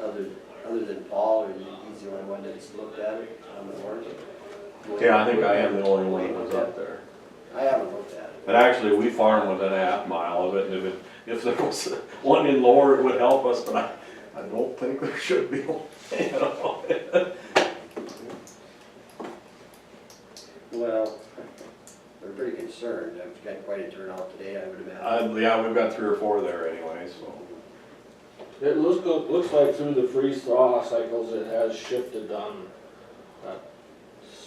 other, other than Paul, or he's the only one that's looked at it on the board? Yeah, I think I am the only one that was up there. I haven't looked at it. But actually, we farm within a half mile of it, and if it, if there was one in lower, it would help us, but I, I don't think there should be one, you know? Well, they're pretty concerned, I've got quite a turnout today, I would imagine. Uh, yeah, we've got three or four there anyway, so. It looks, go- looks like through the freeze thaw cycles, it has shifted on that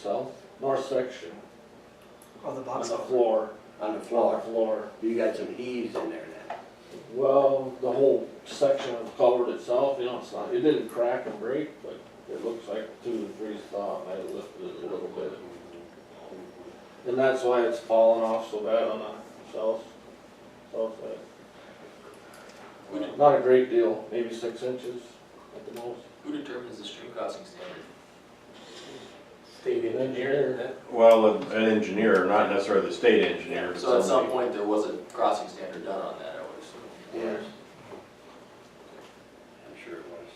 south, north section, On the on the box culvert. floor, On the on the floor, floor. you got some heaves in there now. Well, the whole section of culvert itself, you know, it's not, it didn't crack and break, but it looks like through the freeze thaw, it might have lifted it a little bit. And that's why it's fallen off so bad on the south, south side. Not a great deal, maybe six inches at the most. Who determines the stream crossing standard? State engineer, Well, an engineer, not necessarily the state engineer, but So at some somebody. point, there was a crossing standard done on that, I would assume. Yeah, I'm sure it was.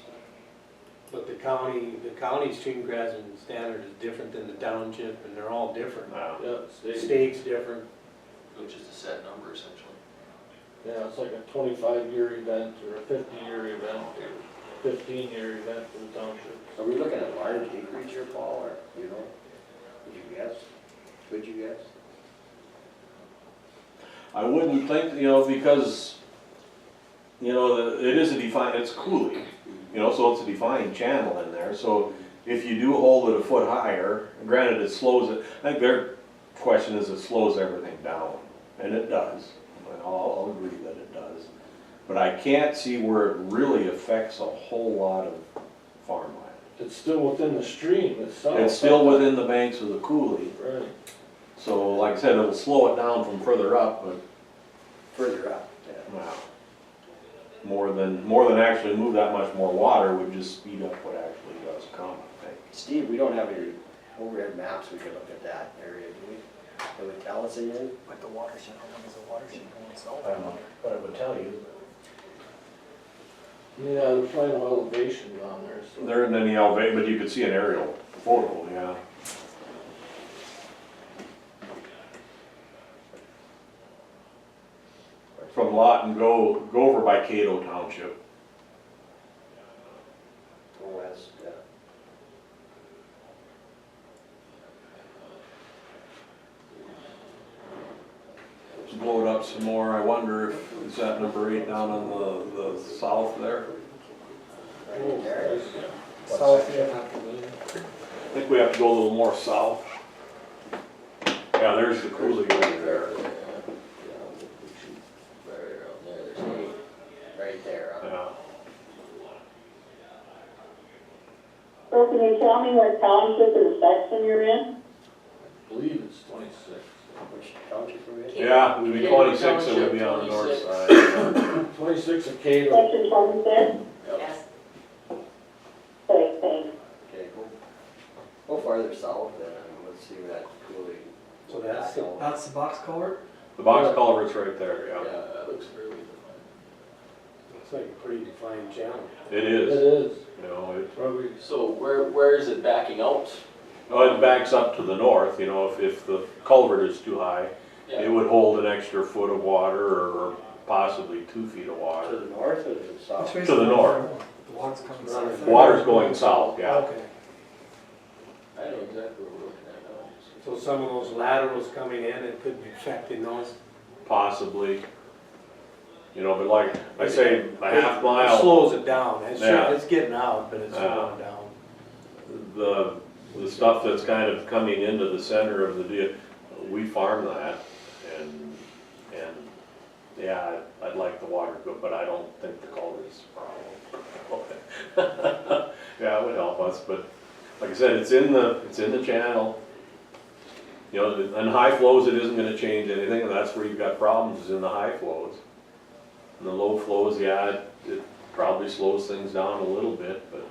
but the county, the county stream crossing standard is different than the township, and they're all different. Yeah. Yeah, The state. State's different, Which is a set number essentially. Yeah, it's like a twenty-five year event or a fifty-year event, or fifteen-year event for the township. Are we looking at large acreage here, Paul, or, you know, would you guess? Would you guess? I wouldn't think, you know, because, you know, the- it is a defined, it's coulee, you know, so it's a defined channel in there, so if you do hold it a foot higher, granted it slows it, I think their question is it slows everything down, and it does, and I'll, I'll agree that it does. But I can't see where it really affects a whole lot of farmland. It's still within the stream itself. It's still within the banks of the coulee, Right, so like I said, it'll slow it down from further up, but Further up, yeah. Wow. More than, more than actually move that much more water would just speed up what actually does come, I think. Steve, we don't have any overhead maps, we could look at that area, do we? It would tell us anything? But the watershed, how long is the watershed going south? I don't know, but it would tell you. yeah, there's probably no elevation on there, so. There isn't any elevation, but you could see an aerial photo, yeah. From Lawton, go, go over by Cato Township. Or uh, west, yeah. Just blow it up some more, I wonder if, is that number eight down on the, the south there? Right there. South, yeah. I think we have to go a little more south. Yeah, there's the coulee right there. Right around there, there's eight. Right there, huh? Yeah. So can you tell me what township and section you're in? I believe it's twenty-six. which township are we in? Yeah, we'd be twenty-six, it would be on the north side. Twenty-six of Cato, Section twenty-six? Yes. Okay, thanks. Okay, go, go farther south then, and let's see where that cooling. so that's the That's the box culvert. The box culvert's right there, Yeah, yeah. that looks fairly defined. It's like a pretty defined channel. It it is, is, you know, it, probably, So where, where is it backing out? oh, it backs up to the north, you know, if, if the culvert is too high, it Yeah, would hold an extra foot of water or possibly two feet of To water. the north or to the Which Uh, south? way is To the north. water? The water's coming Water- south. Water's going south, yeah. Okay. I know exactly where we're looking at now. So some of those laterals coming in, it could be affecting those. Possibly. You know, but like, I say, a half mile. It slows it down, it's, Yeah. it's getting out, but it's Yeah. slowing down. the, the stuff that's kind of coming into the center of the deal, we farm that and, and, yeah, I- I'd like the water to go, but I don't think the culvert's a problem. Yeah, it would help us, but like I said, it's in the, it's in the channel. You know, and high flows, it isn't gonna change anything, and that's where you've got problems, is in the high flows. And the low flows, yeah, it- it probably slows things down a little bit, but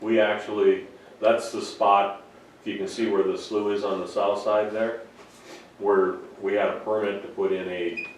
We actually, that's the spot, if you can see where the slough is on the south side there, where we had a permit to put in a